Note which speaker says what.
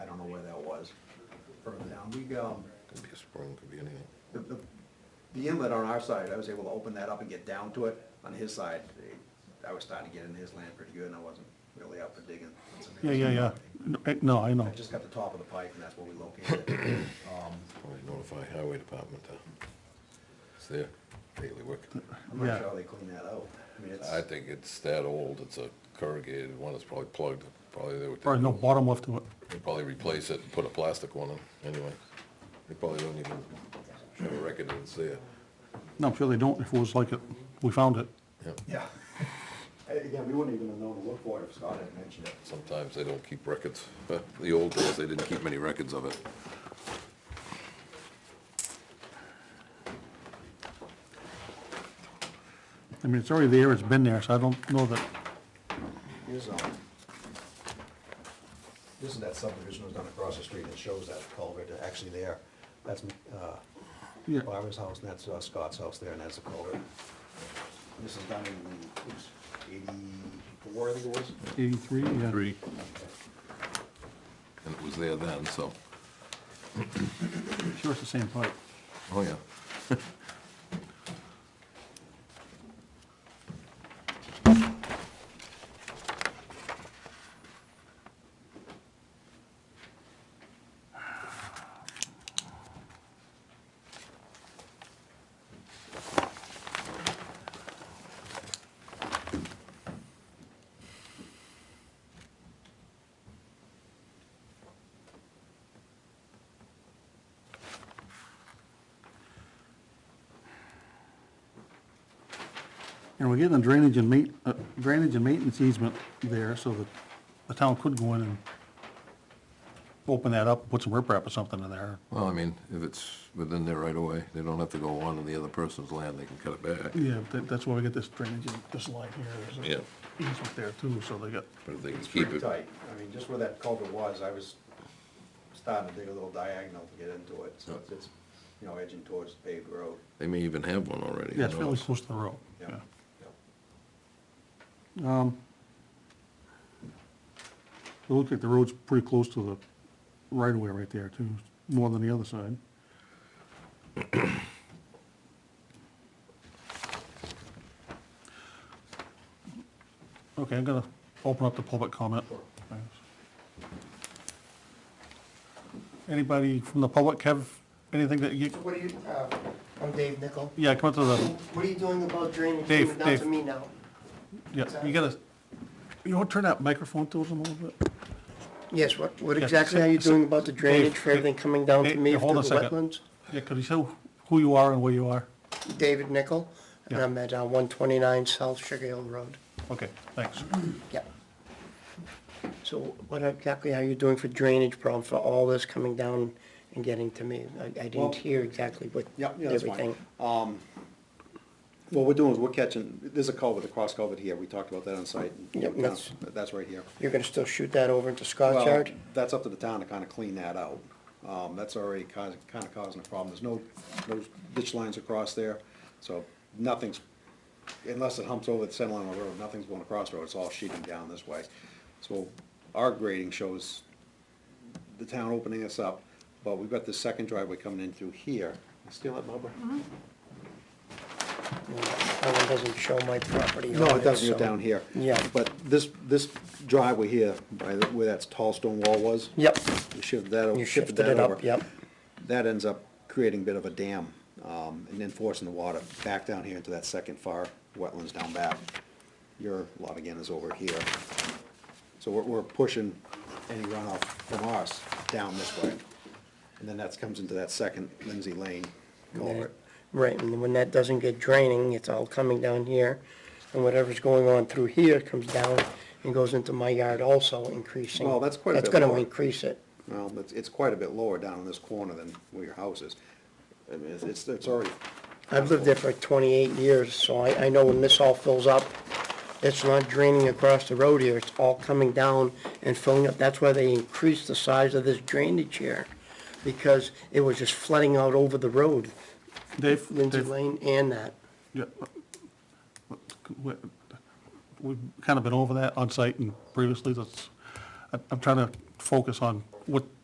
Speaker 1: was further down. We, um,
Speaker 2: Could be a spring, could be anything.
Speaker 1: the, the, the inlet on our side, I was able to open that up and get down to it. On his side, eh, I was starting to get into his land pretty good and I wasn't really out for digging.
Speaker 3: Yeah, yeah, yeah. No, I- No, I
Speaker 1: I
Speaker 3: know.
Speaker 1: just got the top of the pipe and that's where we located it. Um,
Speaker 2: Probably notify highway department to, it's their daily work.
Speaker 1: I'm not
Speaker 3: Yeah.
Speaker 1: sure how they clean that out. I mean, it's,
Speaker 2: I think it's that old, it's a corrugated one, it's probably plugged, probably they would,
Speaker 3: Probably no bottom left to it.
Speaker 2: they probably replace it and put a plastic one in, anyway. They probably don't even have a record that it's there.
Speaker 3: No, I'm sure they don't. If it was like it, we found it.
Speaker 2: Yep.
Speaker 1: yeah. Eh, Again, we wouldn't even have known to look for it if Scott hadn't mentioned it.
Speaker 2: Sometimes they don't keep records, but the old days, they didn't keep many records of it.
Speaker 3: I mean, it's already there, it's been there, so I don't know that,
Speaker 1: Here's, um, this is that subdivision that was done across the street, it shows that culvert actually there. That's, uh,
Speaker 3: Yeah.
Speaker 1: Barbara's house, and that's uh, Scott's house there, and that's the culvert. This is done in, oops, eighty-four, I think it was.
Speaker 3: eighty-three, yeah.
Speaker 2: Three. And it was there then, so,
Speaker 3: Sure, it's the same pipe.
Speaker 2: oh yeah.
Speaker 3: And we're getting a drainage and ma, uh, drainage and maintenance easement there, so that the town could go in and open that up, put some riprap or something in there.
Speaker 2: Well, I mean, if it's within their right of way, they don't have to go on to the other person's land, they can cut it back.
Speaker 3: Yeah, that, that's why we get this drainage, and this line here,
Speaker 2: Yeah.
Speaker 3: is a easement there too, so they got,
Speaker 2: But if they can
Speaker 1: It's
Speaker 2: keep
Speaker 1: pretty
Speaker 2: it,
Speaker 1: tight, I mean, just where that culvert was, I was starting to dig a little diagonal to get into it, so it's- it's, you know, edging towards the paved road.
Speaker 2: they may even have one already.
Speaker 3: yeah, it's
Speaker 2: who
Speaker 3: fairly
Speaker 2: knows?
Speaker 3: close to the road,
Speaker 1: Yeah.
Speaker 3: yeah.
Speaker 1: yeah.
Speaker 3: Um, It looks like the road's pretty close to the right-of-way right there, too, more than the other side. Okay, I'm gonna open up the public comment. Thanks. Anybody from the public have anything that you,
Speaker 4: What are you, uh, I'm Dave Nickel.
Speaker 3: yeah, come up to the,
Speaker 4: What are you doing about drainage
Speaker 3: Dave,
Speaker 4: coming down
Speaker 3: Dave.
Speaker 4: to me now?
Speaker 3: yeah, you gotta, you wanna turn that microphone towards them a little bit?
Speaker 4: Yes, what, what
Speaker 3: Yeah,
Speaker 4: exactly
Speaker 3: so-
Speaker 4: are you
Speaker 3: so-
Speaker 4: doing about the
Speaker 3: Dave,
Speaker 4: drainage for
Speaker 3: Dave,
Speaker 4: everything coming down to
Speaker 3: Dave,
Speaker 4: me
Speaker 3: Dave, hold
Speaker 4: through
Speaker 3: on
Speaker 4: the
Speaker 3: a second.
Speaker 4: wetlands?
Speaker 3: Yeah, could you say who you are and where you are?
Speaker 4: David Nickel, and
Speaker 3: Yeah.
Speaker 4: I'm at uh, 129 South Sugar Hill Road.
Speaker 3: Okay, thanks.
Speaker 4: Yeah. So what exactly are you doing for drainage problem for all this coming down and getting to me? I- I
Speaker 1: Well-
Speaker 4: didn't hear exactly what,
Speaker 1: Yeah, yeah, that's fine.
Speaker 4: everything.
Speaker 1: What we're doing is we're catching, there's a culvert, a cross culvert here, we talked about that on site.
Speaker 4: Yep, that's-
Speaker 1: That's right here.
Speaker 4: You're gonna still shoot that over into Scott's
Speaker 1: Well,
Speaker 4: yard?
Speaker 1: That's up to the town to kind of clean that out. Um, that's already kind of, kind of causing a problem. There's no, no ditch lines across there, so nothing's, unless it humps over the center line of the road, nothing's going across the road. It's all sheeting down this way. So our grading shows the town opening us up, but we've got this second driveway coming in through here. Steal that, Barbara?
Speaker 4: That one doesn't show my property on
Speaker 1: No, it doesn't go
Speaker 4: so-
Speaker 1: down here.
Speaker 4: Yeah.
Speaker 1: But this, this driveway here, by the, where that tall stone wall was,
Speaker 4: Yep,
Speaker 1: we shifted that, o-
Speaker 4: you
Speaker 1: shifted
Speaker 4: shifted
Speaker 1: that
Speaker 4: it
Speaker 1: over.
Speaker 4: up, yep.
Speaker 1: that ends up creating a bit of a dam, um, and then forcing the water back down here into that second far wetlands down back. Your lot again is over here. So we're, we're pushing any runoff from ours down this way. And then that comes into that second Lindsay Lane culvert.
Speaker 4: Right, and when that doesn't get draining, it's all coming down here, and whatever's going on through here comes down and goes into my yard also increasing.
Speaker 1: Well, that's quite a bit
Speaker 4: That's
Speaker 1: more.
Speaker 4: gonna increase it.
Speaker 1: Well, it's, it's quite a bit lower down in this corner than where your house is. I mean, it's- it's, it's already,
Speaker 4: I've lived there for twenty-eight years, so I, I know when this all fills up, it's not draining across the road here, it's all coming down and filling up. That's why they increased the size of this drainage here, because it was just flooding out over the road,
Speaker 3: Dave,
Speaker 4: Lindsay
Speaker 3: Dave,
Speaker 4: Lane and that.
Speaker 3: yeah, uh, we- we've kind of been over that on site and previously, that's, I- I'm trying to focus on what